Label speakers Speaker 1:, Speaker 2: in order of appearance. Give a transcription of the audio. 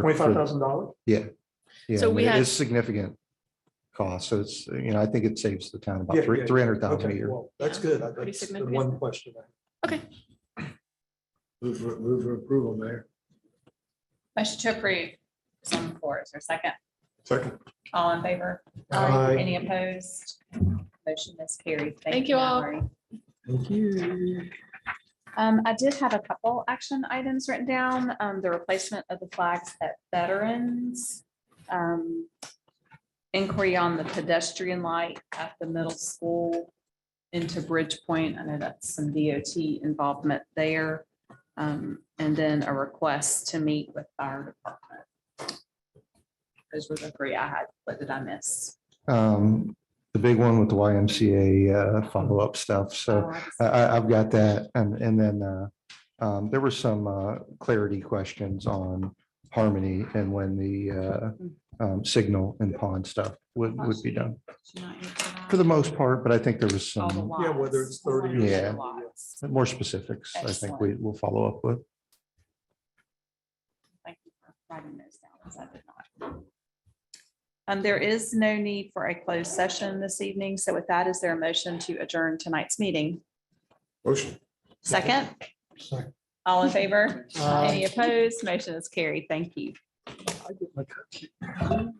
Speaker 1: Twenty-five thousand dollars?
Speaker 2: Yeah,
Speaker 3: So
Speaker 2: I mean,
Speaker 3: we
Speaker 2: it
Speaker 3: had-
Speaker 2: is significant cost. So it's, you know, I think it saves the town about
Speaker 1: Yeah,
Speaker 2: three,
Speaker 1: yeah,
Speaker 2: three hundred thousand a
Speaker 1: Okay,
Speaker 2: year.
Speaker 1: well, that's
Speaker 3: Yeah,
Speaker 1: good. I-
Speaker 3: pretty
Speaker 1: That's the
Speaker 3: significant.
Speaker 1: one question. I-
Speaker 4: Move for, move for approval, Mayor.
Speaker 5: Motion to approve is on the floor. Is there a second?
Speaker 4: Second.
Speaker 5: All in favor?
Speaker 3: Uh,
Speaker 1: Aye.
Speaker 5: Uh, Any opposed? Motion is carried.
Speaker 3: Thank you all.
Speaker 5: Mallory.
Speaker 4: Thank you.
Speaker 5: Um, I did have a couple action items written down, um, the replacement of the flags at Veterans. um, Inquiry on the pedestrian light at the middle school into Bridgepoint. I know that's some DOT involvement there. Um, and then a request to meet with our department. Those were the three I had. What did I miss?
Speaker 2: Um, the big one with the YMCA, uh, follow-up stuff. So uh,
Speaker 5: Oh, I
Speaker 2: I,
Speaker 5: just-
Speaker 2: I, I've got that. And, and then, uh, um, there were some, uh, clarity questions on harmony and when the, uh, um, signal and pond stuff would, would be done
Speaker 5: Did you not hear that?
Speaker 2: for the most part, but I think there was
Speaker 5: All the
Speaker 2: some
Speaker 1: Yeah, whether
Speaker 5: lots.
Speaker 1: it's 30
Speaker 2: or
Speaker 5: Yeah.
Speaker 2: something, more specifics. I think
Speaker 5: Excellent.
Speaker 2: we will follow up with.
Speaker 5: Thank you for writing those down, because I did not. Um, there is no need for a closed session this evening, so with that, is there a motion to adjourn tonight's meeting?
Speaker 4: Motion.
Speaker 5: Second,
Speaker 1: Sorry.
Speaker 5: all in favor?
Speaker 1: Aye.
Speaker 5: Any opposed? Motion is carried. Thank you.
Speaker 1: I get my cookie.